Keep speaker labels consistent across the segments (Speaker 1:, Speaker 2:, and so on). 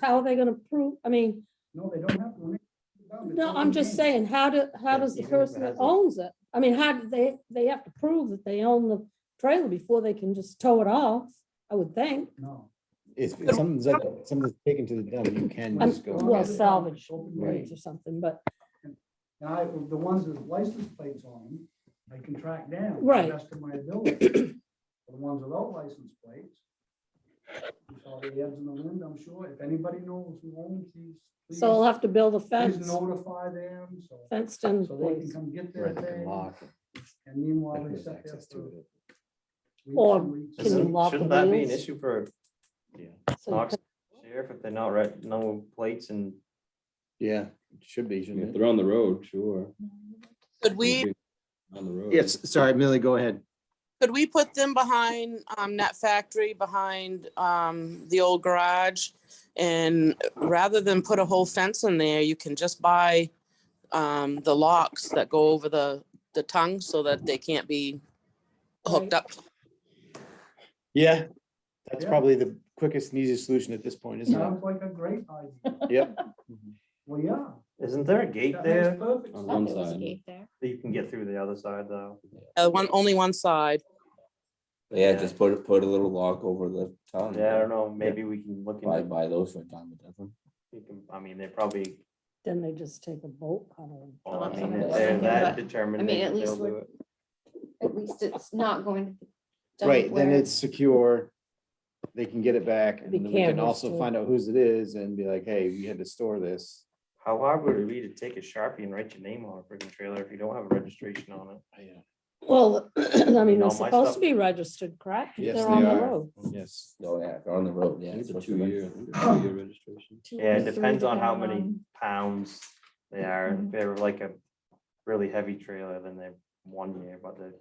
Speaker 1: How are they gonna prove, I mean,
Speaker 2: No, they don't have to. remain down. It's
Speaker 1: no,
Speaker 2: all
Speaker 1: I'm
Speaker 2: in
Speaker 1: just
Speaker 2: name.
Speaker 1: saying, how do, how
Speaker 3: Yeah,
Speaker 1: does the
Speaker 3: even if it
Speaker 1: person that
Speaker 3: has a-
Speaker 1: owns it? I mean, how do they, they have to prove that they own the trailer before they can just tow it off, I would think.
Speaker 2: No.
Speaker 3: It's, if something's like, something's taken to the dump, you can
Speaker 1: Um,
Speaker 3: just go. and
Speaker 1: Well,
Speaker 3: get it.
Speaker 1: salvage
Speaker 2: Open
Speaker 1: rates
Speaker 3: Right.
Speaker 1: or something, but,
Speaker 2: And I, the ones with license plates on them, I can track down. to the
Speaker 1: Right.
Speaker 2: Best of my ability. The ones without license plates. You saw the ads in the wind, I'm sure. If anybody knows who owns these. please-
Speaker 1: so I'll have to build a
Speaker 2: Please
Speaker 1: fence,
Speaker 2: notify them, so,
Speaker 1: fenced in
Speaker 2: so they can
Speaker 1: place.
Speaker 2: come get their
Speaker 3: Right, they can
Speaker 2: thing.
Speaker 3: lock it.
Speaker 2: And meanwhile,
Speaker 3: Like,
Speaker 2: they
Speaker 3: there's
Speaker 2: sit there
Speaker 3: access
Speaker 2: for
Speaker 3: to it.
Speaker 2: weeks
Speaker 1: Or
Speaker 2: and weeks.
Speaker 1: Can you
Speaker 4: Isn't-
Speaker 1: lock the
Speaker 4: Shouldn't that be an
Speaker 1: wheels?
Speaker 4: issue for
Speaker 3: Yeah,
Speaker 1: So
Speaker 4: Knox sheriff if they're not right, no plates and
Speaker 3: yeah, it should be,
Speaker 5: If
Speaker 6: Mm-hmm.
Speaker 3: shouldn't it?
Speaker 5: they're on the road, sure.
Speaker 7: Could we,
Speaker 5: On the road.
Speaker 3: Yes, sorry, Millie, go ahead.
Speaker 7: could we put them behind, um, Net Factory, behind, um, the old garage? And rather than put a whole fence in there, you can just buy, um, the locks that go over the, the tongue so that they can't be hooked up.
Speaker 3: Yeah, that's
Speaker 2: Yeah.
Speaker 3: probably the quickest and easiest solution at this point, isn't it?
Speaker 2: Sounds like a great idea.
Speaker 3: Yep,
Speaker 2: Well, yeah.
Speaker 4: isn't there a gate
Speaker 2: that makes
Speaker 4: there
Speaker 2: perfect
Speaker 5: On
Speaker 2: sense.
Speaker 5: one side.
Speaker 4: that you can get through the other side though?
Speaker 7: Uh, one, only one side.
Speaker 6: Yeah,
Speaker 4: Yeah.
Speaker 6: just put, put a little lock over the tongue.
Speaker 4: Yeah, I don't know, maybe we can look
Speaker 6: Buy,
Speaker 4: into,
Speaker 6: buy those for a dime a dozen.
Speaker 4: we can- I mean, they're probably,
Speaker 1: Then they just take a bolt cutter. and-
Speaker 4: well, I
Speaker 8: that's
Speaker 4: mean,
Speaker 8: what I
Speaker 4: if
Speaker 8: was
Speaker 4: they're
Speaker 8: thinking,
Speaker 4: that
Speaker 8: but,
Speaker 4: determined.
Speaker 8: I mean,
Speaker 4: they-
Speaker 8: at least
Speaker 4: they'll do
Speaker 8: we're-
Speaker 4: it.
Speaker 8: at least it's not going to. the dump
Speaker 3: right, then
Speaker 8: where-
Speaker 3: it's secure. They can get it back and
Speaker 1: Be
Speaker 3: then we can
Speaker 1: cameras
Speaker 3: also
Speaker 1: too.
Speaker 3: find out whose it is and be like, hey, we had to store this.
Speaker 4: How hard would it be to take a Sharpie and write your name on a freaking trailer if you don't have a registration on it?
Speaker 3: Yeah.
Speaker 1: Well, I mean,
Speaker 4: all
Speaker 1: they're
Speaker 4: my
Speaker 1: supposed to
Speaker 4: stuff-
Speaker 1: be registered, correct? If
Speaker 3: Yes,
Speaker 1: They're
Speaker 3: they
Speaker 1: on the
Speaker 3: are.
Speaker 1: road.
Speaker 3: Yes,
Speaker 6: Oh, yeah, they're on the road,
Speaker 5: I
Speaker 6: yeah.
Speaker 5: think It's a
Speaker 6: supposed to be-
Speaker 5: two-year, I think it's a two-year registration.
Speaker 4: Yeah, it depends on how many
Speaker 8: Um,
Speaker 4: pounds they are. If
Speaker 8: Mhm.
Speaker 4: they're like a really heavy trailer, then they're one year, but they're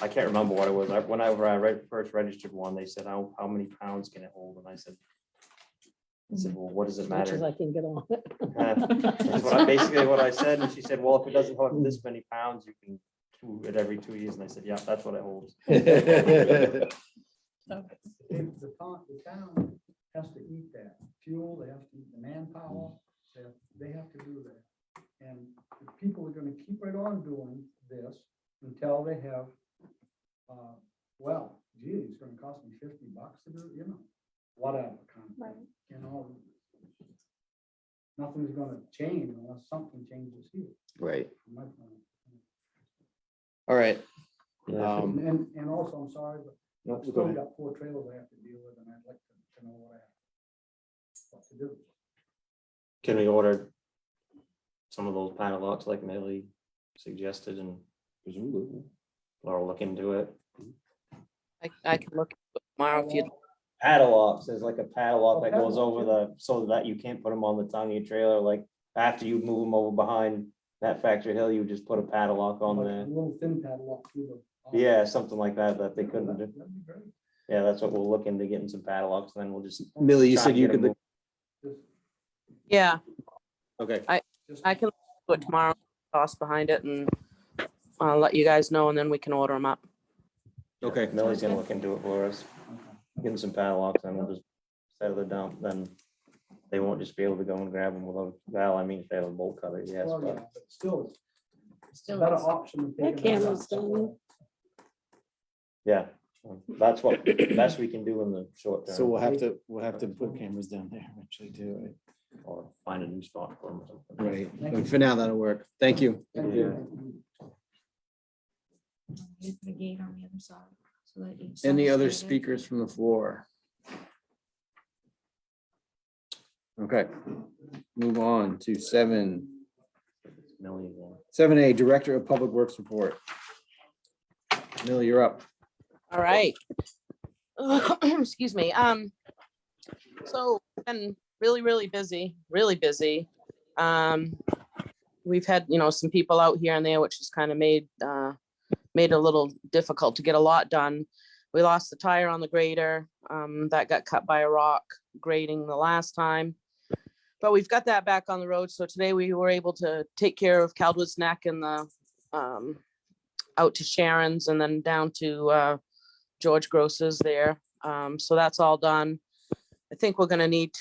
Speaker 4: I can't remember what it was. I- Whenever I read, first registered one, they said, how, how many pounds can it hold? And I said, I said, well, what does it
Speaker 1: As much as
Speaker 4: matter?
Speaker 1: I can get on
Speaker 4: That's what I,
Speaker 1: it.
Speaker 4: basically what I said. And she said, well, if it doesn't hold this many pounds, you can do it every two years. And I said, yeah, that's what it holds.
Speaker 2: If the town, the town has to eat that fuel, they have to eat the manpower, they, have- they have to do that. And the people are gonna keep right on doing this until they have, uh, well, gee, it's gonna cost me fifty bucks to do, it, you know, whatever kind of thing, you know. Nothing's gonna change unless something changes here.
Speaker 3: right,
Speaker 2: from my point of view.
Speaker 3: all right.
Speaker 4: Yeah.
Speaker 3: Um,
Speaker 2: And, and- and also, I'm sorry, but
Speaker 3: no,
Speaker 2: I've
Speaker 3: go
Speaker 2: still
Speaker 3: ahead.
Speaker 2: got four trailers I have to deal with, and I'd like to, to know what I have. What to do.
Speaker 4: Can we order some of those panel locks like Millie suggested and
Speaker 5: Presumably.
Speaker 4: Laura look into it?
Speaker 7: I, I can look tomorrow if you,
Speaker 4: Padlocks, there's like a
Speaker 2: Oh,
Speaker 4: padlock that goes
Speaker 2: padlock,
Speaker 4: over the, so that you can't put them on the tongue of your trailer, like after you move them over behind that factory hill, you just put a padlock on
Speaker 2: Like
Speaker 4: there.
Speaker 2: A little thin padlock through the.
Speaker 4: Yeah, something like that, that they
Speaker 2: Yeah,
Speaker 4: couldn't
Speaker 2: that-
Speaker 4: do.
Speaker 2: that'd be great.
Speaker 4: Yeah, that's what we'll look into getting some padlocks, then we'll just.
Speaker 3: Millie, you
Speaker 4: try
Speaker 3: said
Speaker 4: and
Speaker 3: you
Speaker 4: get
Speaker 3: could,
Speaker 4: 'em
Speaker 3: look-
Speaker 2: Just-
Speaker 7: yeah,
Speaker 3: okay,
Speaker 2: just-
Speaker 7: I can do it tomorrow, toss behind it and I'll let you guys know and then we can order them up.
Speaker 3: okay.
Speaker 4: over. Millie's gonna look into it for us,
Speaker 2: Okay.
Speaker 4: getting some padlocks, then we'll just settle the dump, then they won't just be able to go and grab them without, well, I mean, if they have a bolt cutter, yes,
Speaker 2: Well,
Speaker 4: but.
Speaker 2: yeah, but Still, it's a
Speaker 8: Still,
Speaker 2: better
Speaker 8: it's-
Speaker 2: option. than
Speaker 1: That
Speaker 2: taking it
Speaker 1: camera's
Speaker 2: out
Speaker 1: done.
Speaker 2: somewhere.
Speaker 4: Yeah, that's what, best we can do in the short term.
Speaker 3: So we'll have to, we'll have to put cameras down there eventually too.
Speaker 4: Or find a new spot for them or something.
Speaker 3: Right, But for now, that'll work. Thank you.
Speaker 2: Thank you.
Speaker 8: Use the gate on the other side, so that each
Speaker 3: Any
Speaker 8: side's
Speaker 3: other
Speaker 8: gated.
Speaker 3: speakers from the floor? Okay, move on to seven,
Speaker 4: Millie's, uh,
Speaker 3: seven A, Director of Public Works Report. Millie, you're up.
Speaker 7: All right. Excuse me. Um, so been really, really busy, really busy. Um, we've had, you know, some people out here and there, which has kind of made, uh, made it a little difficult to get a lot done. We lost the tire on the grader, um, that got cut by a rock grading the last time. But we've got that back on the road. So today we were able to take care of Caldwell's Neck and the, um, out to Sharon's and then down to, uh, George Gross is there. Um, so that's all done. I think we're gonna need to.